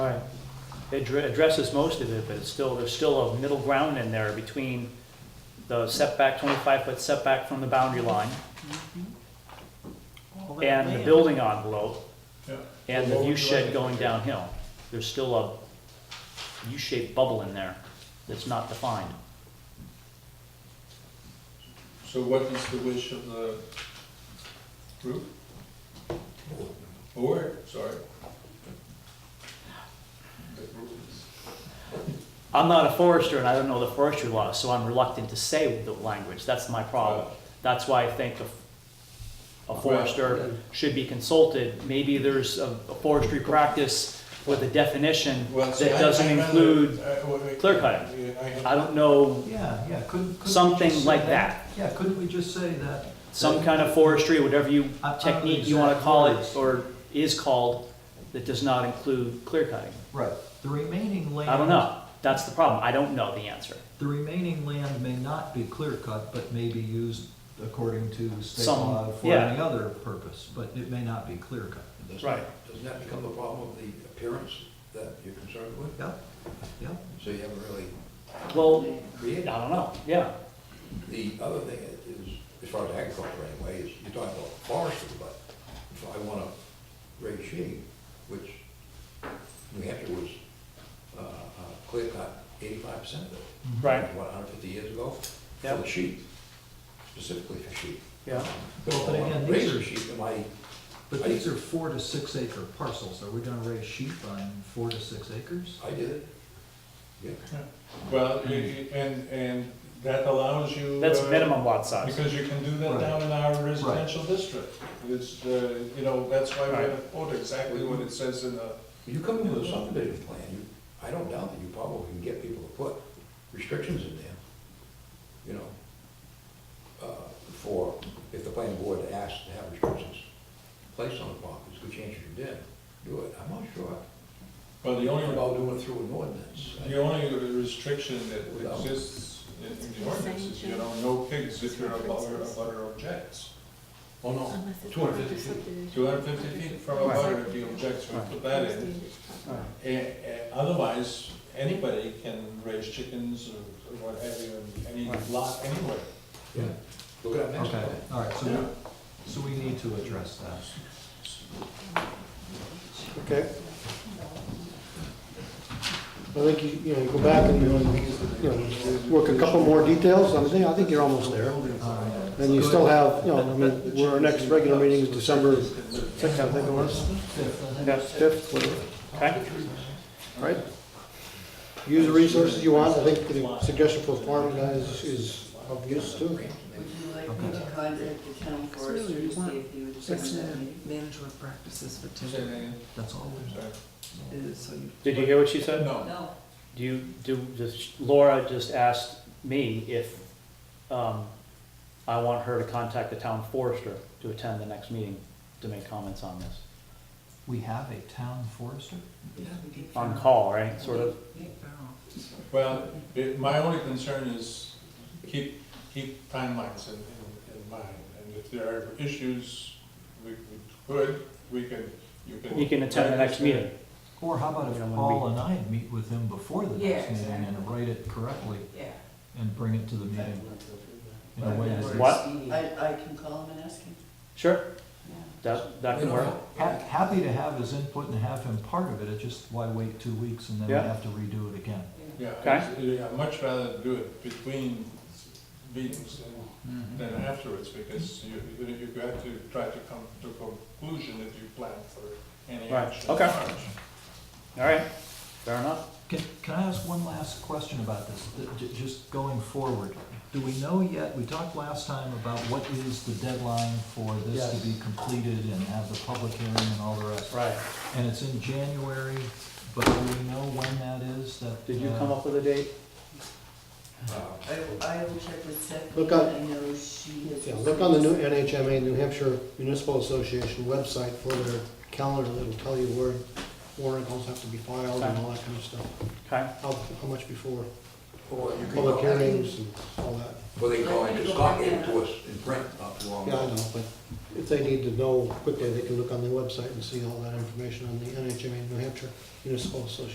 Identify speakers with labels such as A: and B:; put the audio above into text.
A: It dr- addresses most of it, but it's still, there's still a middle ground in there between the setback, twenty-five foot setback from the boundary line
B: All that
A: and the
B: land.
A: building envelope
C: Yeah.
A: and the
C: Well,
A: view
C: what would
A: shed
C: you
A: going
C: like?
A: downhill. There's still a U-shaped bubble in there that's not defined.
C: So what is the wish of the group? Board, sorry. The group is-
A: I'm not a forester and I don't know the forestry laws, so I'm reluctant to say the language, that's my problem.
C: Right.
A: That's why I think a- a forester should be consulted. Maybe there's a a forestry practice with a definition
C: Well,
A: that
C: see, I-
A: doesn't
C: I'd rather-
A: include,
C: I- wait, wait.
A: clear cutting.
C: Yeah, I have-
A: I don't know,
B: Yeah, yeah, couldn't. couldn't we
A: Something
B: just say
A: like that.
B: Yeah, couldn't we just say that?
A: some kind of forestry, whatever you,
B: I- I don't
A: technique you wanna
B: exact
A: call
B: words.
A: it, or is called, that does not include clear cutting.
B: Right, the remaining land.
A: I don't know, that's the problem, I don't know the answer.
B: The remaining land may not be clear cut, but may be used according to state
A: Some-
B: law for
A: yeah.
B: any other purpose, but it may not be clear cut.
D: Doesn't-
A: Right.
D: Doesn't that become the problem of the appearance that you're concerned with?
B: Yeah, yeah.
D: So you haven't really
A: Well, I
D: created.
A: don't know, yeah,
D: The other thing is, as far as agriculture anyway, is you're talking about forestry, but if I want to raise sheep, which New Hampshire was, uh, uh, clear cut eighty-five percent of it.
A: right,
D: What, hundred fifty years ago?
A: Yeah.
D: For the sheep, specifically for sheep.
A: yeah.
D: But
B: Well, but
D: if I
B: again,
D: want to
B: these
D: raise
B: are-
D: sheep, am I,
B: But these are four to six acre parcels, are we gonna raise sheep on four to six acres?
D: I did it. Yeah.
C: Well, you- you- and, and that allows you.
A: That's
C: uh,
A: minimum lot size.
C: Because you can do that
B: Right.
C: down in our residential district. It's, uh, you know, that's why we
A: Right.
C: have a quote exactly what it says in the,
D: You come into a subdivision plan, you, I don't doubt that you probably can get people to put restrictions in there, you know, uh, for, if the planning board asks to have restrictions placed on the properties, good chance you did do it. I'm not sure
C: well, the only,
D: about doing it through an ordinance.
C: The only restriction that exists in in the ordinance is, you know, no pigs if you're a butter, a butter objects.
D: Oh, no,
E: Unless it's
D: two hundred fifty feet.
E: subdivision.
C: Two hundred fifty feet from a butter if he objects, we put that in. And, and otherwise, anybody can raise chickens or what have you, in any lot anywhere.
D: Yeah. Look at that next
B: Okay,
D: plan.
B: all right, so,
C: Yeah.
B: we- so we need to address that.
F: Okay. I think, you you know, you go back and, you know, work a couple more details, I mean, I think you're almost there.
B: Um,
F: And you still have, you know, I mean, we're- our next regular meeting is December sixth, I think it was, fifth, whatever,
A: Okay,
F: All right? Use the resources you want, I think the suggestion for farming guys is of use too.
G: Would you like me to contact the town forester to see if he would attend that meeting?
H: management practices for
C: Say that again,
B: That's all we
C: sorry.
H: is, so you
A: did you hear what she said?
C: No,
G: No,
A: Do you, do, does- Laura just asked me if, um, I want her to contact the town forester to attend the next meeting to make comments on this.
B: We have a town forester?
A: On call, right, sort of?
C: well, it- my only concern is keep, keep timelines in, in- in mind. And if there are issues, we we could, we can, you can.
A: You can attend the next meeting.
B: Or how about
A: We
B: if
A: don't wanna
B: Paul and I meet with him before the
G: Yeah,
B: next meeting and write it correctly
G: yeah.
B: and bring it to the meeting in a way that.
A: What?
G: I, I can call him and ask him,
A: Sure,
G: yeah.
A: that, that can work.
D: uh,
B: Ha- Happy to have his input and have him part of it, it's just why wait two weeks and then we
A: Yeah.
B: have to redo it again?
C: Yeah,
A: Okay.
C: I'd- yeah, I'd much rather do it between meetings than- than afterwards, because you, you you have to try to come to a conclusion if you plan for any
A: Right,
C: action.
A: okay. All right, fair enough.
B: Can, can I ask one last question about this, th- j- just going forward? Do we know yet, we talked last time about what is the deadline for this
F: Yes.
B: to be completed and have the public hearing and all the rest?
A: Right,
B: And it's in January, but do we know when that is that?
A: did you
B: uh,
A: come up with a date?
D: Uh,
G: I, I will check with Seth.
F: Look on-
G: I know she has.
F: Yeah, look on the new NHMA, New Hampshire Municipal Association website for their calendar, it'll tell you where articles have to be filed and all that kind of stuff.
A: Okay,
F: How, how much before
D: Or you can
F: public
D: go,
F: hearings and all that.
D: or uh, they can go and just copy it to us in print, not too long.
F: Yeah, I
D: ago.
F: know, but if they need to know quickly, they can look on the website and see all that information on the NHMA New Hampshire Municipal Association.